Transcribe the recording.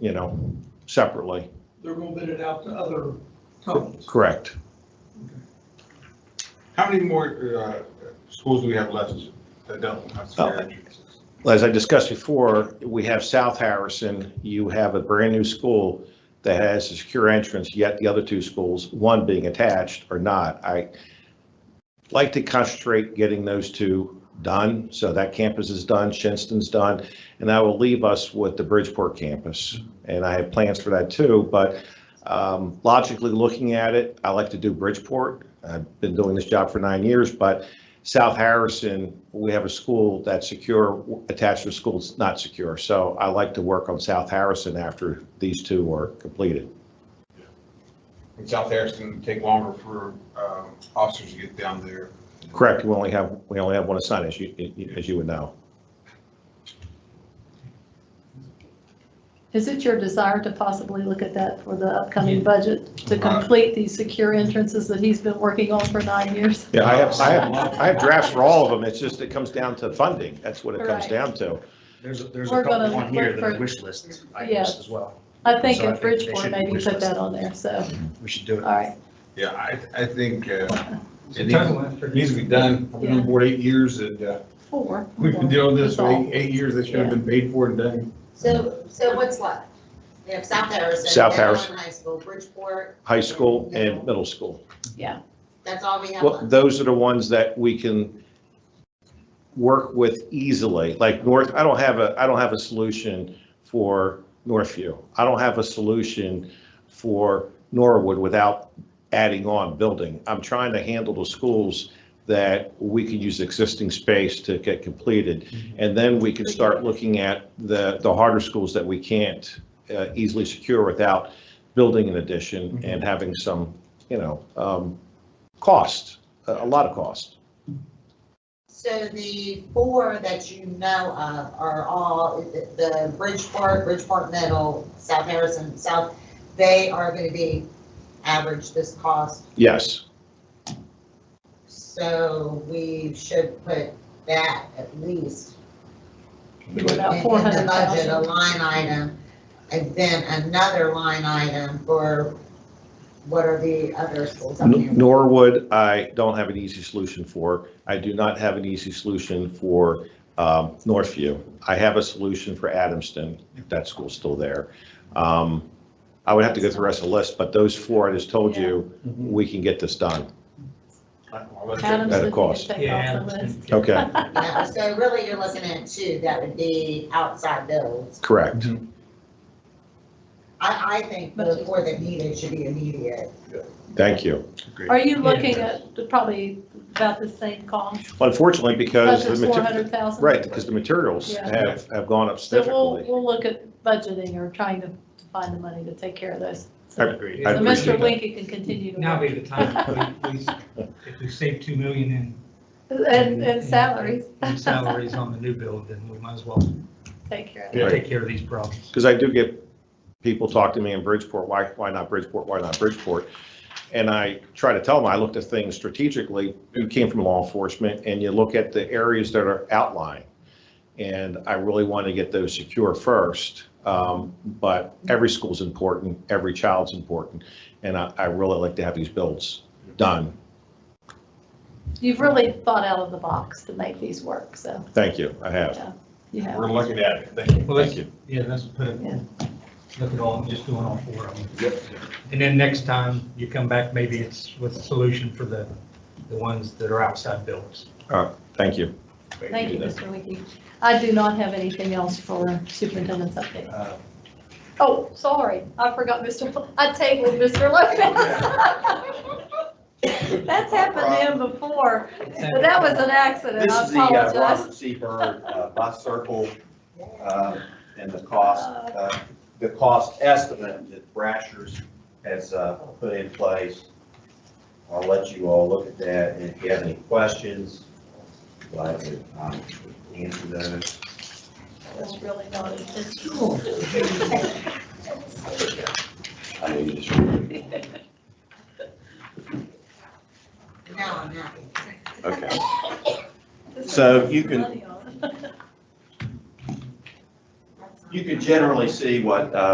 you know, separately. They're gonna bid it out to other companies. Correct. How many more uh, schools do we have left that don't have Oh. fire entrances? As I discussed before, we have South Harrison, you have a brand-new school that has a secure entrance, yet the other two schools, one being attached or not. I like to concentrate getting those two done, so that campus is done, Shinston's done, and that will leave us with the Bridgeport campus. And I have plans for that too, but um, logically looking at it, I like to do Bridgeport. I've been doing this job for nine years, but South Harrison, we have a school that's secure, attached to a school that's not secure. So I like to work on South Harrison after these two are completed. In South Harrison, take longer for um, officers to get down there. Correct, we only have, we only have one assigned, as you, as you would know. Is it your desire to possibly look at that for the upcoming budget, to Right. complete these secure entrances that he's been working on for nine years? Yeah, I have, I have, I have drafts for all of them, it's just, it comes down to funding, that's what it comes Right. down to. There's, a- there's We're a couple gonna on here look that are for- wish list Yeah. items as well. I think So I at think they Bridgeport, should be maybe wish put that listed. on there, so, We should do all it. right. Yeah, I, I think uh, it needs- it needs It's to be done. I've been on board eight years and uh, Four. we've been dealing with this for That's eight, eight years. This should have been paid for and done. So, so what's left? We have South Harrison. South Downtown Harrison. High School, Bridgeport, High school and middle school. that's all we have Well, left. those are the ones that we can work with easily, like North, I don't have a, I don't have a solution for Northview. I don't have a solution for Norwood without adding on building. I'm trying to handle the schools that we could use existing space to get completed. And then we can start looking at the, the harder schools that we can't uh, easily secure without building an addition and having some, you know, um, cost, a a lot of cost. So the four that you know of are all, the Bridgeport, Bridgeport Middle, South Harrison, South, they are going to be average this cost. Yes, So we should put that at least You were in about four in the hundred budget, a thousand. line item, and then another line item for what are the other schools up here? N- Norwood, I don't have an easy solution for. I do not have an easy solution for um, Northview. I have a solution for Adamston, if that school's still there. Um, I would have to go through the rest of the list, but those four I just told you, Mm-hmm. we can get this done. Adams, At a if you could cost. take Yeah. off the list. Okay, Yeah, So really, you're looking at two that would be outside those. correct. I, I think the four that needed should be immediate. Thank you. Are you looking at the- probably about the same cost? Unfortunately, because, the Budget's four mater- hundred thousand? right, because the materials Yeah. have, have gone up So we'll, significantly. we'll look at budgeting or trying to find the money to take care of those. So Agreed. I so appreciate Mr. that. Lincoln can continue to Now work. be the time, we, we, if we save two million in. And, and salaries, in salaries on the new build, then we might as well take care of Yeah. it. take care of these problems. Because I do get people talk to me in Bridgeport, why, why not Bridgeport, why not Bridgeport? And I try to tell them, I looked at things strategically, you came from law enforcement, and you look at the areas that are outlying. And I really want to get those secure first, um, but every school's important, every child's important. And I, I really like to have these builds done. You've really thought out of the box to make these work, so, Thank you, I have. you know. We're looking at it. Thank you. Well, Thank let's, you. yeah, let's put it, Yeah. look at all, just doing all four of them. Yep. And then next time you come back, maybe it's with a solution for the, the ones that are outside buildings. Thank you. Thank you, Mr. Wiki. I do not have anything else for superintendent's update. Uh, Oh, sorry, I forgot Mr., I tabled Mr. Lopez. That's happened to him before, but that was an accident, This I is the uh, apologize. Robert C. Byrd uh, bus circle uh, and the cost, uh, the cost estimate that Brashers has uh, put in place. I'll let you all look at that, and if you have any questions, glad to um, answer those. That's really not intentional. I know you just. Now I'm happy. Okay. So you can- Money on it. You can generally see what uh,